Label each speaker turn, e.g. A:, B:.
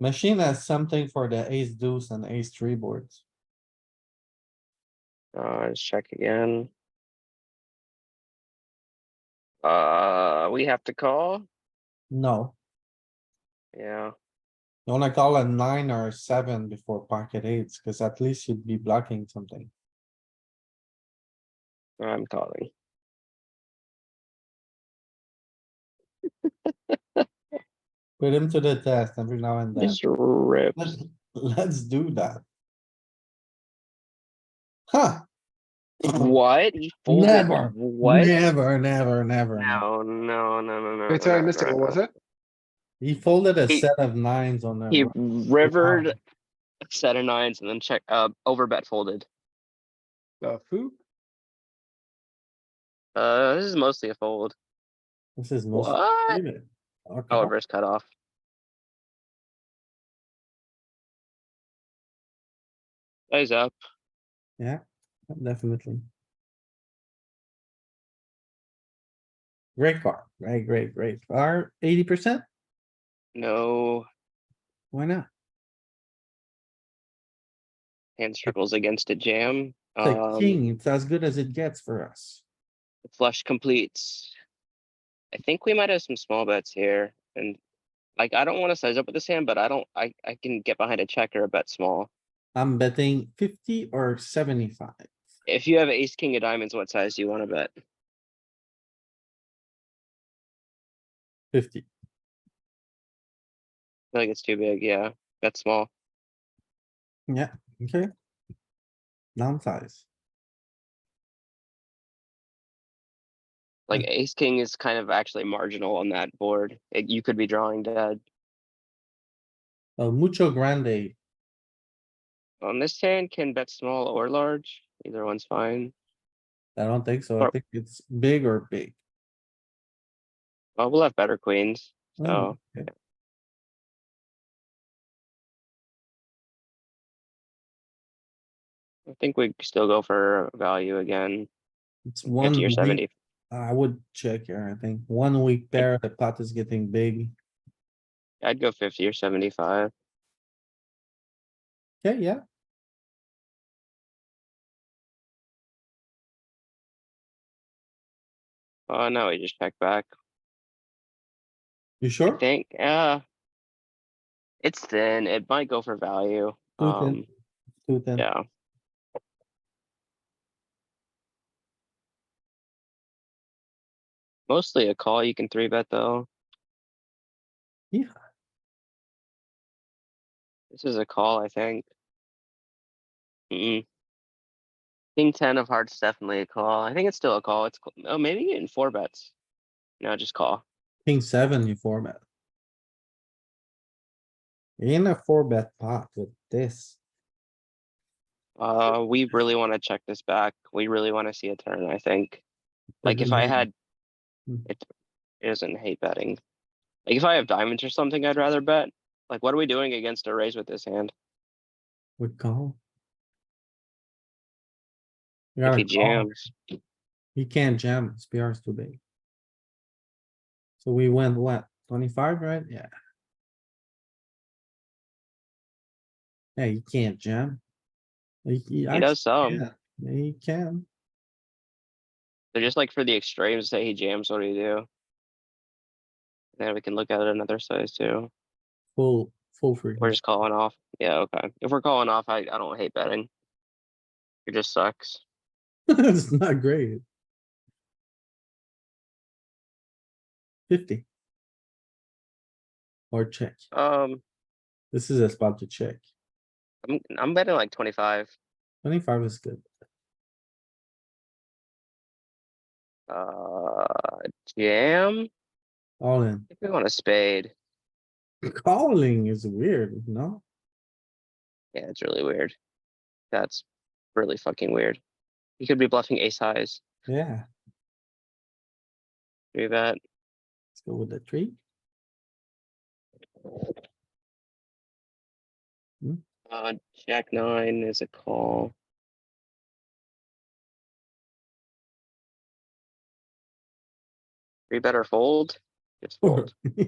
A: Machine has something for the ace deuce and ace three boards.
B: Uh, let's check again. Uh, we have to call,
A: No,
B: yeah,
A: you wanna call a nine or a seven before pocket eights, cuz at least you'd be blocking something.
B: I'm calling.
A: Put him to the test every now and then.
B: Just rip.
A: Let's, let's do that. Huh,
B: What? He folded?
A: Never,
B: What?
A: never, never, never.
B: No, no, no, no, no.
C: Wait, sorry, I
B: no,
C: missed it.
B: no,
C: What was
B: no.
C: it?
A: He folded a
B: He-
A: set of nines on the.
B: He
A: river.
B: rivered a set of nines and then check, uh, over bet folded.
C: The foo?
B: Uh, this is mostly a fold.
A: This is most.
B: What?
A: Okay.
B: However, it's cut off. Eyes up.
A: Definitely. Great card, right? Great, great. Are eighty percent?
B: No
A: Why not?
B: hand struggles against a jam.
A: It's a
B: Um,
A: king. It's as good as it gets for us.
B: flush completes. I think we might have some small bets here and like, I don't want to size up with this hand, but I don't, I, I can get behind a checker a bet small.
A: I'm betting fifty or seventy-five.
B: If you have ace, king of diamonds, what size do you want to bet?
A: Fifty.
B: I feel like it's too big, yeah, that's small.
A: Yeah, okay. Downsize.
B: Like ace, king is kind of actually marginal on that board. It- You could be drawing dead.
A: Well, mucho grande.
B: On this hand, can bet small or large, either one's fine.
A: I don't think so. I
B: Or-
A: think it's big or big.
B: Well, we'll have better queens,
A: Oh,
B: so
A: okay.
B: I think we still go for value again,
A: It's one.
B: fifty or
A: week-
B: seventy.
A: I would check here, I think. One week pair, the pot is getting big.
B: I'd go fifty or seventy-five.
A: Yeah, yeah.
B: Oh, no, we just check back.
A: You
B: I
A: sure?
B: think, uh. It's thin, it might go for value.
A: Two ten.
B: Um,
A: Two ten.
B: yeah, mostly a call, you can three bet though.
A: Yeah.
B: This is a call, I think. Mm. King ten of hearts definitely a call. I think it's still a call. It's, cl- oh, maybe in four bets. No, just call.
A: King seven, you four bet. In a four bet pot with this,
B: Uh, we really wanna check this back. We really wanna see a turn, I think. Like if
A: Doesn't
B: I
A: hate
B: had.
A: Mm.
B: It it doesn't hate betting. Like if I have diamonds or something, I'd rather bet. Like what are we doing against a raise with this hand?
A: we call. We
B: If
A: gotta
B: he
A: call.
B: jams,
A: He can't jam, his PR is too big. So we went what, twenty-five, right? Yeah. Yeah, you can't jam. He- He
B: he
A: actu-
B: does some.
A: yeah, he can.
B: They're just like for the extremes, say he jams, what do you do? Then we can look at it another size too.
A: Full, full free.
B: We're just calling off. Yeah, okay. If we're calling off, I I don't hate betting. It just sucks.
A: It's not great. Fifty. Or check.
B: Um,
A: This is a spot to check.
B: I'm I'm betting like twenty-five.
A: Twenty-five is good.
B: Uh, jam.
A: All in.
B: If we want a spade,
A: Calling is weird, no?
B: yeah, it's really weird. That's really fucking weird. You could be bluffing ace highs.
A: Yeah,
B: Do that.
A: let's go with the three.
B: Uh, jack nine is a call. Three better fold. Just
A: Four.
B: fold.